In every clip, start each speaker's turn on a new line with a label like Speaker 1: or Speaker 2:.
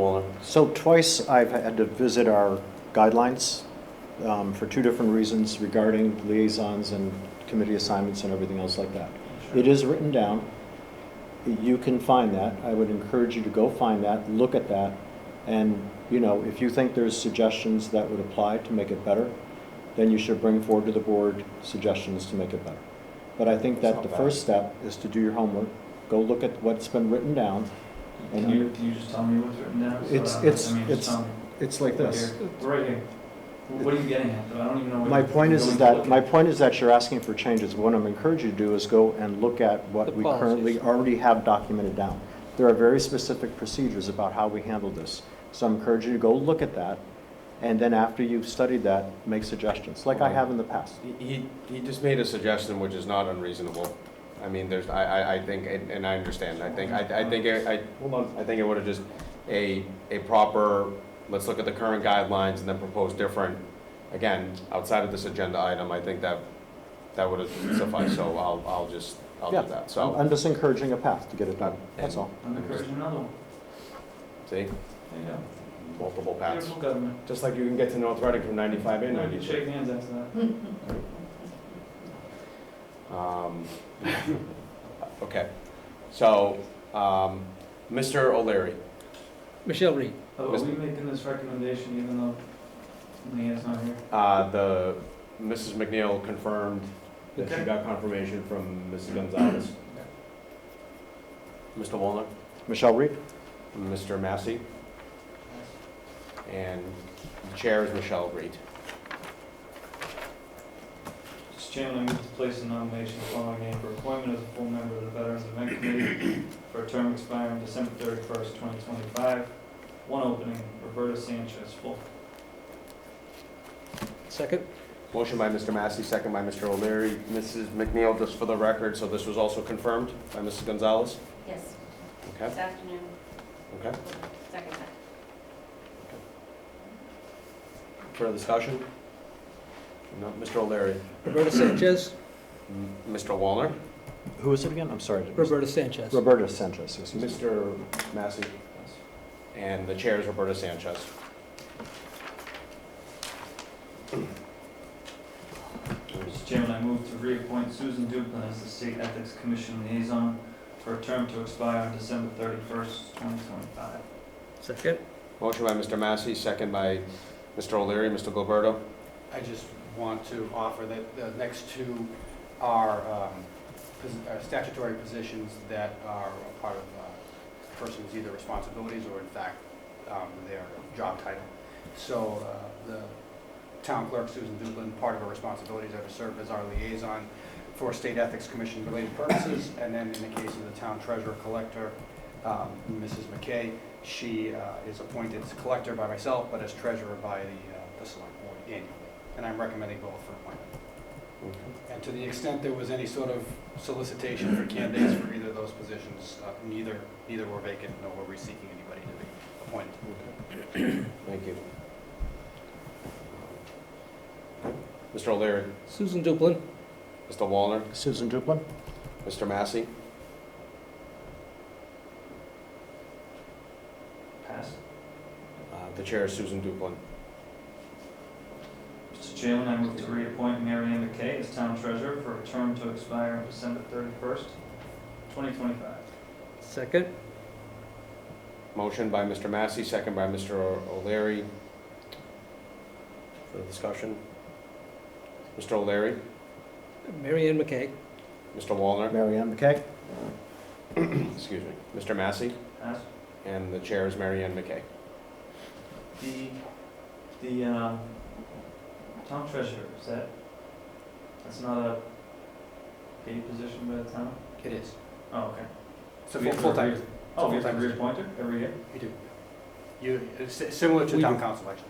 Speaker 1: Waller.
Speaker 2: So twice I've had to visit our guidelines um, for two different reasons regarding liaisons and committee assignments and everything else like that. It is written down. You can find that. I would encourage you to go find that, look at that. And, you know, if you think there's suggestions that would apply to make it better, then you should bring forward to the board suggestions to make it better. But I think that the first step is to do your homework, go look at what's been written down. And
Speaker 3: Can you,
Speaker 2: you-
Speaker 3: can you just tell me what's written down? So
Speaker 2: It's-
Speaker 3: that-
Speaker 2: it's-
Speaker 3: I mean, just
Speaker 2: it's-
Speaker 3: tell me.
Speaker 2: It's like
Speaker 3: Right
Speaker 2: this.
Speaker 3: here. Right here. Wh- What are you getting at? though? I don't even know. what
Speaker 2: My
Speaker 3: you're-
Speaker 2: point is
Speaker 3: you're
Speaker 2: is
Speaker 3: going
Speaker 2: that,
Speaker 3: to
Speaker 2: my
Speaker 3: look
Speaker 2: point is that you're asking for changes. What I'm encouraging you to do is go and look at
Speaker 4: The
Speaker 2: what we
Speaker 4: policies.
Speaker 2: currently already have documented down. There are very specific procedures about how we handle this. So I'm encouraging you to go look at that, and then after you've studied that, make suggestions, like I have in the past.
Speaker 1: He- He, he just made a suggestion which is not unreasonable. I mean, there's, I, I, I think, and and I understand, I think, I, I think, it- I, hold on, I think it would have just, a, a proper, let's look at the current guidelines and then propose different, again, outside of this agenda item, I think that, that would have sufficed, so I'll, I'll just, I'll
Speaker 2: Yeah.
Speaker 1: do that,
Speaker 2: I'm
Speaker 1: so.
Speaker 2: I'm just encouraging a path to get it done, that's all.
Speaker 3: I'm encouraging another one. There
Speaker 1: See,
Speaker 3: you go.
Speaker 1: multiple paths.
Speaker 3: Beautiful government.
Speaker 1: Just like you can get to North Reading from ninety-five
Speaker 3: We
Speaker 1: and
Speaker 3: can
Speaker 1: ninety-six.
Speaker 3: shake hands after
Speaker 2: Hmm.
Speaker 3: that.
Speaker 1: Um, Okay, so, um, Mr. O'Leary,
Speaker 4: Michelle Reed.
Speaker 3: Oh, Are
Speaker 1: Mis-
Speaker 3: we making this recommendation even though Leanne's not here?
Speaker 1: uh, the, Mrs. McNeil confirmed that she got confirmation from Mrs. Gonzalez. Mr. Wallner,
Speaker 2: Michelle Reed?
Speaker 1: Mr. Massey, and the Chair is Michelle Reed.
Speaker 3: Mr. Chairman, I move to place a nomination of the following name for appointment as a full member of the Veterans Event Committee for a term expiring December thirty-first, twenty twenty-five. One opening, Roberta Sanchez, full.
Speaker 4: Second?
Speaker 1: Motion by Mr. Massey, second by Mr. O'Leary. Mrs. McNeil, just for the record, so this was also confirmed by Mrs. Gonzalez?
Speaker 5: Yes,
Speaker 1: Okay,
Speaker 5: this afternoon,
Speaker 1: okay.
Speaker 5: second time.
Speaker 1: Further discussion? No, Mr. O'Leary,
Speaker 4: Roberta Sanchez?
Speaker 1: M- Mr. Wallner?
Speaker 2: Who is it again? I'm sorry. I didn't-
Speaker 4: Roberta Sanchez.
Speaker 2: Roberta Sanchez, excuse me.
Speaker 1: Mr. Massey? And the chair is Roberta Sanchez.
Speaker 3: Mr. Chairman, I move to reappoint Susan Duplin as the State Ethics Commission Liaison for a term to expire on December thirty-first, twenty twenty-five.
Speaker 4: Second?
Speaker 1: Motion by Mr. Massey, second by Mr. O'Leary, Mr. Gilberto.
Speaker 6: I just want to offer that the next two are um, pos- are statutory positions that are a part of uh, a person's either responsibilities or in fact um, their job title. So uh, the town clerk, Susan Duplin, part of her responsibilities are to serve as our liaison for state ethics commission related purposes. And then in the case of the town treasurer collector, um, Mrs. McKay, she uh, is appointed as collector by myself, but as treasurer by the, uh, the select board annually. And I'm recommending both for appointment. And to the extent there was any sort of solicitation for candidates for either of those positions, uh, neither, neither were vacant, nor were we seeking anybody to be appointed.
Speaker 1: Thank you. Mr. O'Leary,
Speaker 4: Susan Duplin?
Speaker 1: Mr. Wallner,
Speaker 2: Susan Duplin?
Speaker 1: Mr. Massey,
Speaker 3: Pass.
Speaker 1: uh, the chair is Susan Duplin.
Speaker 3: Mr. Chairman, I move to reappoint Mary Ann McKay as town treasurer for a term to expire on December thirty-first, twenty twenty-five.
Speaker 4: Second?
Speaker 1: Motion by Mr. Massey, second by Mr. O'Leary. For the discussion. Mr. O'Leary,
Speaker 4: Mary Ann McKay?
Speaker 1: Mr. Wallner,
Speaker 2: Mary Ann McKay?
Speaker 1: excuse me, Mr. Massey,
Speaker 3: Pass.
Speaker 1: and the chair is Mary Ann McKay.
Speaker 3: The, the, um, town treasurer, is that, that's not a paid position by the town?
Speaker 6: It is.
Speaker 3: Oh, okay.
Speaker 6: It's a
Speaker 3: We
Speaker 6: full-
Speaker 3: have to
Speaker 6: full-time,
Speaker 3: re- Oh, we have to
Speaker 6: full-time position.
Speaker 3: reappoint her every year?
Speaker 6: you do. You, it's s- similar to
Speaker 4: We
Speaker 6: town
Speaker 4: do.
Speaker 6: council, actually,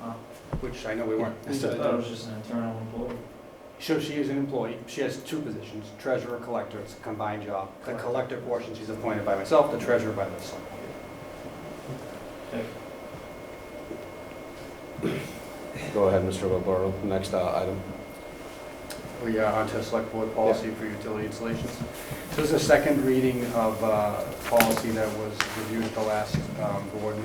Speaker 3: Oh.
Speaker 6: which I know we weren't.
Speaker 3: I
Speaker 6: necessarily
Speaker 3: thought it was just an internal employee.
Speaker 6: So she is an employee, she has two positions, treasurer, collector, it's a combined job. The collector portion, she's appointed by myself, the treasurer by the select board.
Speaker 1: Go ahead, Mr. Gilberto, next uh, item.
Speaker 6: We are Oh, on to select board policy for utility installations. So this is a second reading of uh, policy that was reviewed at the last um, board meeting.